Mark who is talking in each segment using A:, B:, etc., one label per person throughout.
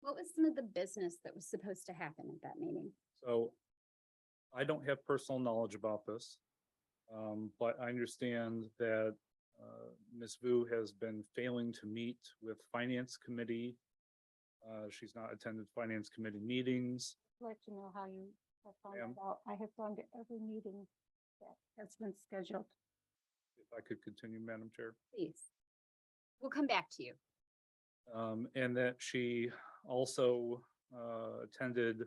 A: What was some of the business that was supposed to happen at that meeting?
B: So I don't have personal knowledge about this. Um, but I understand that, uh, Ms. Vu has been failing to meet with Finance Committee. Uh, she's not attended Finance Committee meetings.
C: let you know how you have found
B: Ma'am?
C: that out. I have gone to every meeting that has been scheduled.
B: If I could continue, Madam Chair.
A: Please. We'll come back to you.
B: Um, and that she also, uh, attended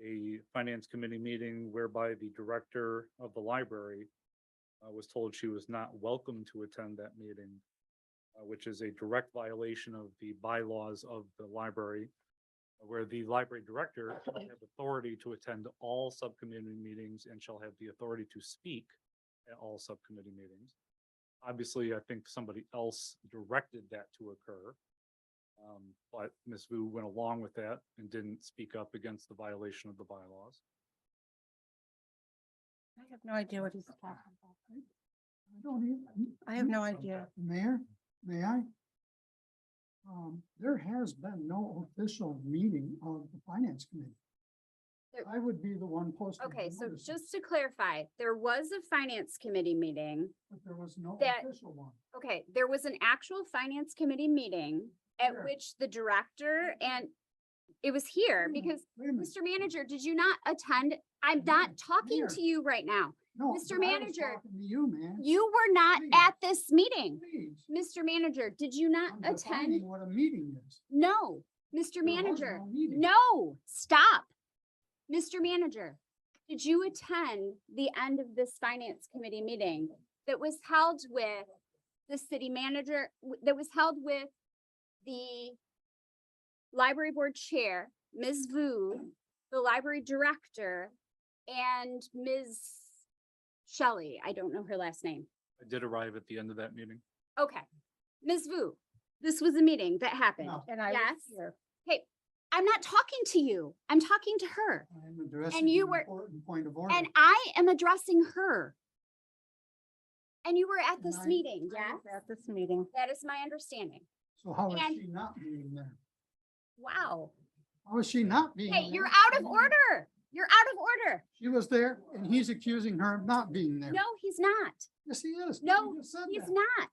B: a finance committee meeting whereby the director of the library uh, was told she was not welcome to attend that meeting, uh, which is a direct violation of the bylaws of the library, where the library director shall have authority to attend all subcommittee meetings and shall have the authority to speak at all subcommittee meetings. Obviously, I think somebody else directed that to occur. Um, but Ms. Vu went along with that and didn't speak up against the violation of the bylaws.
C: I have no idea what he's talking about.
D: I don't even.
C: I have no idea.
D: Mayor, may I? Um, there has been no official meeting of the finance committee.
A: There-
D: I would be the one posting. the
A: Okay, so
D: notices,
A: just to clarify, there was a finance committee meeting.
D: But there was no
A: that-
D: official one.
A: Okay, there was an actual finance committee meeting at
D: Sure.
A: which the director
C: Mm-hmm.
A: and it was here
D: Wait a minute,
A: because,
D: Wait a minute,
A: Mr. Manager, did you not attend? I'm not
D: Mayor,
A: talking
D: Mayor.
A: to you right now.
D: no.
A: Mr.
D: but I was
A: Manager,
D: talking To you, man.
A: You were not
D: Please.
A: at this meeting.
D: Please.
A: Mr. Manager, did you not
D: I'm defining
A: attend?
D: What a meeting is.
A: No, Mr.
D: There was
A: Manager.
D: no meeting.
A: No, stop. Mr. Manager, did you attend the end of this finance committee meeting that was held with the city manager, w- that was held with the library board chair, Ms. Vu, the library director, and Ms. Shelley, I don't know her last name.
B: I did arrive at the end of that meeting.
A: Okay, Ms. Vu, this was a meeting that happened.
D: No.
C: And I was
A: Yes.
C: here.
A: I'm not talking to you. I'm talking to her.
D: I'm addressing
A: you
D: an
A: were-
D: important point of order.
A: And I am addressing her. And you were at
D: And
A: this
D: I-
A: meeting,
C: I
A: yeah?
C: was At this meeting.
A: That is my understanding.
D: So how is
A: and-
D: she not being there?
A: Wow.
D: How is she not being?
A: Hey,
D: there?
A: you're out of order. You're out of order.
D: She was there and he's accusing her of not being there.
A: No, he's not.
D: Yes, he is.
A: No,
D: You just said
A: He's
D: that.
A: not.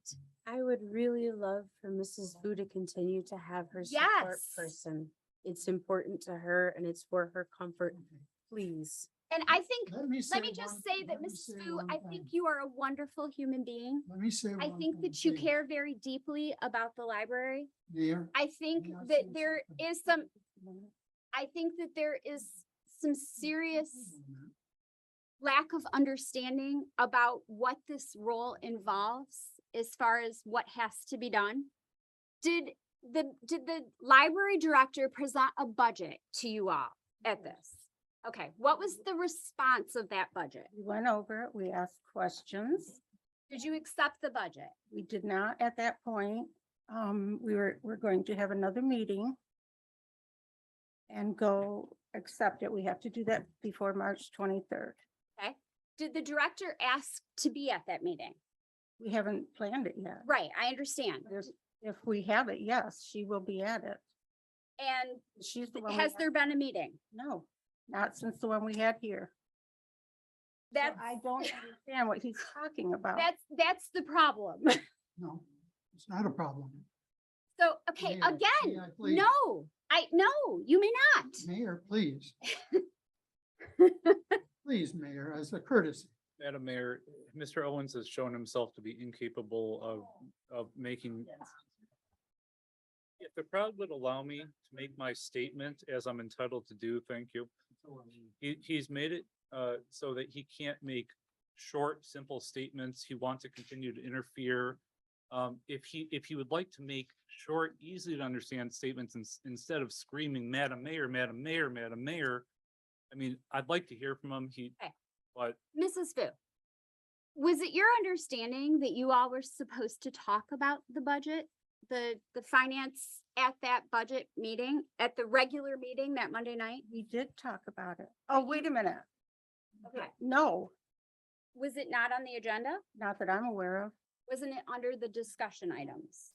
E: I would really love for Mrs. Vu to continue to have her support
A: Yes.
E: person. It's important to her and it's for her comfort,
D: Okay.
E: please.
A: And I think,
D: Let me
A: let me
D: say one-
A: just say that,
D: let me
A: Mrs.
D: say
A: Fu,
D: one
A: I
D: thing.
A: think you are a wonderful human being.
D: Let me say.
A: I
D: one
A: think
D: thing,
A: that you
D: Mayor.
A: care very deeply about the library.
D: Mayor,
A: I think
D: may I say
A: that there
D: something?
A: is some, I think that there is some serious
D: Hold on a minute.
A: lack of understanding about what this role involves as far as what has to be done. Did the, did the library director present a budget to you all at this? Okay, what was the response of that budget?
C: We went over it. We asked questions.
A: Did you accept the budget?
C: We did not at that point. Um, we were, we're going to have another meeting and go accept it. We have to do that before March twenty-third.
A: Did the director ask to be at that meeting?
C: We haven't planned it yet.
A: Right, I understand.
C: There's, if we have it, yes, she will be at it.
A: And
C: She's the one. we
A: has
C: had-
A: there been a meeting?
C: No, not since the one we had here. So
A: That's,
C: I don't understand what he's talking about.
A: that's, that's the problem.
D: No, it's not a problem.
A: So, okay,
D: Mayor, may
A: again,
D: I please-
A: no, I, no, you may not.
D: Mayor, please. Please, Mayor, as a courtesy.
B: Madam Mayor, Mr. Owens has shown himself to be incapable of, of making. If the crowd would allow me to make my statement as I'm entitled to do, thank you. He, he's made it, uh, so that he can't make short, simple statements. He wants to continue to interfere. Um, if he, if he would like to make short, easy to understand statements ins- instead of screaming, Madam Mayor, Madam Mayor, Madam Mayor. I mean, I'd like to hear from him. He,
A: Okay.
B: but
A: Mrs. Fu, was it your understanding that you all were supposed to talk about the budget? The, the finance at that budget meeting, at the regular meeting that Monday night?
C: We did talk about it. Oh, wait a minute.
A: Okay.
C: No,
A: Was it not on the agenda?
C: not that I'm aware of.
A: Wasn't it under the discussion items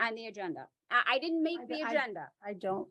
A: on the agenda? I, I didn't make
C: I-
A: the
C: I-
A: agenda.
C: I don't